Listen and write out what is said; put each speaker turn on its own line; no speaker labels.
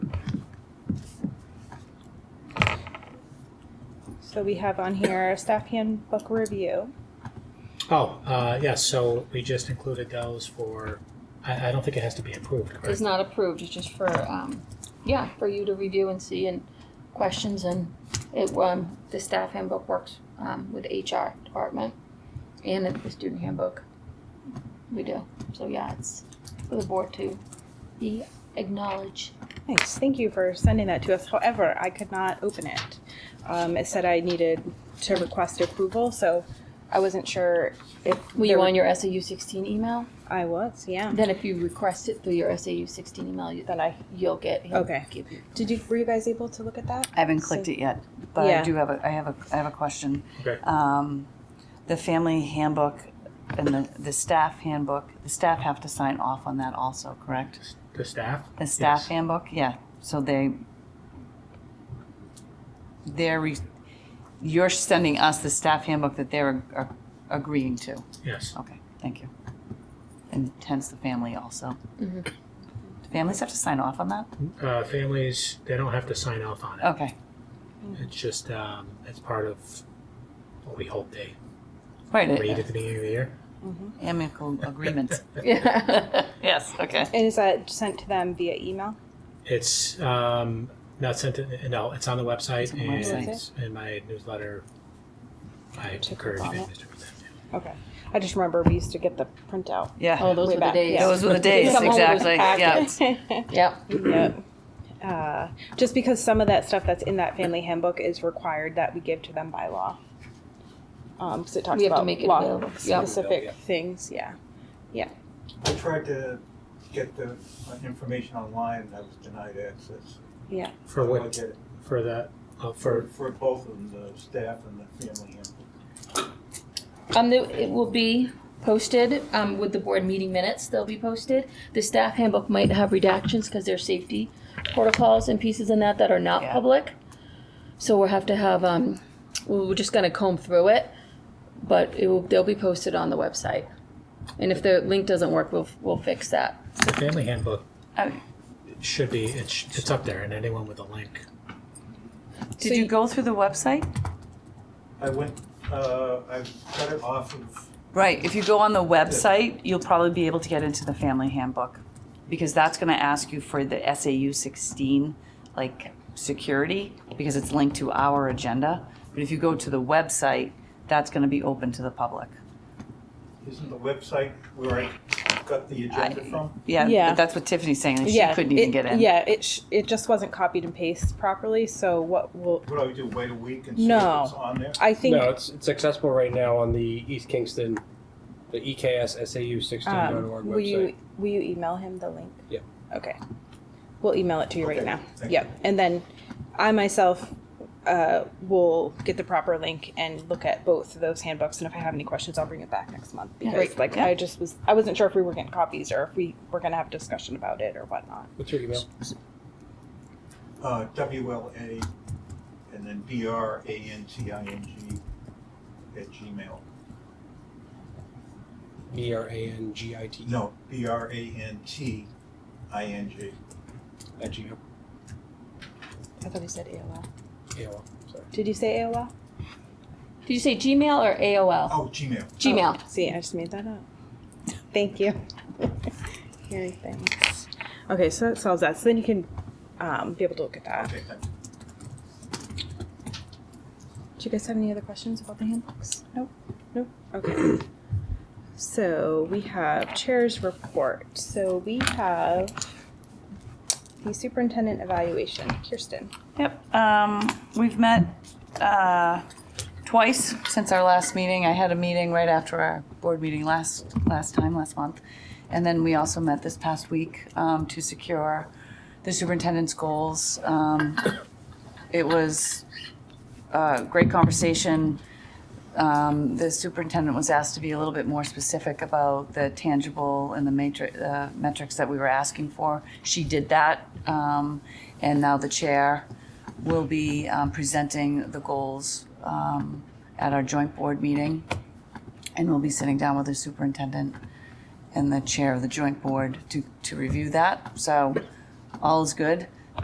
So we have on here staff handbook review.
Oh, uh, yes, so we just included those for, I, I don't think it has to be approved,
It's
correct?
not approved, it's just for, um, yeah, for you to review and see and questions and it, um, the staff handbook works, um, with HR department and the student handbook. We do, so yeah, it's for the board to be acknowledged.
Nice. Thank you for sending that to us. However, I could not open it. Um, it said I needed to request approval, so I wasn't sure if
Were
there-
you on your SAU sixteen email?
I was. Yeah.
Then if you request it through your SAU sixteen email, you-
Then I
you'll get. he'll
Okay.
give you-
did you were you guys able to look at that?
I haven't clicked it yet, but
Yeah.
I do have a, I have a, I have a question.
Okay.
Um, the family handbook and the, the staff handbook, the staff have to sign off on that also, correct?
The staff?
The staff
Yes.
handbook, yeah, so they, they're, re- you're sending us the staff handbook that they're ag- agreeing to.
Yes,
Okay, thank you. And hence the family also. Do Families have to sign off on that?
uh, families, they don't have to sign off on it,
Okay,
it's just, um, it's part of what we hope they
right,
read at
it-
the beginning of the year.
amicable agreements.
Yeah.
Yes, okay.
And is that sent to them via email?
It's, um, not sent, to- no, it's on the website
on the
and
website.
it's in my newsletter. I
Check
encourage
on
families
it.
to read that.
Okay. I just remember we used to get the printout.
Yeah.
Oh, those
Way
were the
back,
days.
yeah.
Those were the days,
Come home with
exactly. Yeah.
Packet.
Yep,
Yep. Uh, just because some of that stuff that's in that family handbook is required that we give to them by law. Um, cause it talks
We have to
about
make it
law
available. Yep.
specific
Yeah.
things, yeah.
I tried to get the uh, information online, and I was denied access.
For
I
what,
get it.
for that, uh, for,
For both of them, the staff and the family handbook.
Um, the- it will be posted, um, with the board meeting minutes, they'll be posted. The staff handbook might have redactions because there's safety protocols and pieces in that that are not
Yeah.
public. So we'll have to have, um, we- we're just gonna comb through it, but it will, they'll be posted on the website. And if the link doesn't work, we'll, we'll fix that.
the family handbook
Uh,
should be, it's, it's up there and anyone with a link.
Did you go through the website?
I went, uh, I cut it off of,
Right, if you go on the website, you'll probably be able to get into the family handbook. Because that's gonna ask you for the SAU sixteen, like, security, because it's linked to our agenda. But if you go to the website, that's gonna be open to the public.
isn't the website where I got the agenda from?
Yeah,
Yeah.
but that's what Tiffany's saying, and she
yeah.
couldn't even
it-
get in.
Yeah, it, sh- it just wasn't copied and pasted properly, so what will,
What do I do, wait a week and see if
No.
it's on there?
I think,
No, it's it's accessible right now on the East Kingston, the E EKS SAU sixteen dot
um,
org
will
website.
you, will you email him the link?
Yeah.
Okay. We'll email it to you right
Okay,
now.
thank
Yep. And then I myself, uh, will get the proper link and look at both of those handbooks. And if I have any questions, I'll bring it back next month.
Yeah.
Because
Great.
like,
Yeah.
I just was, I wasn't sure if we were getting copies or if we were gonna have a discussion about it or whatnot.
What's your email?
Uh, WLA and then B-R-A-N-T-I-N-G at Gmail.
B E R A N G I T E
No, B-R-A-N-T-I-N-G.
at Gmail.
I thought he said AOL.
AOL. Sorry.
Did you say AOL?
Did you say Gmail or AOL?
Oh, Gmail.
Gmail.
See, I just made that up. Thank you. Hearing things. Okay, so that solves that. So then you can, um, be able to look at that.
Okay, thank you.
Do you guys have any other questions about the handbooks? Nope. Nope. Okay. so we have chair's report. So we have the superintendent evaluation, Kirsten.
Yep, um, we've met, uh, twice since our last meeting. I had a meeting right after our board meeting last, last time, last month. And then we also met this past week, um, to secure the superintendent's goals. Um, it was a great conversation. Um, the superintendent was asked to be a little bit more specific about the tangible and the matrix, uh, metrics that we were asking for. She did that, um, and now the chair will be um, presenting the goals um, at our joint board meeting, and we'll be sitting down with the superintendent and the chair of the joint board to, to review that. So all is good.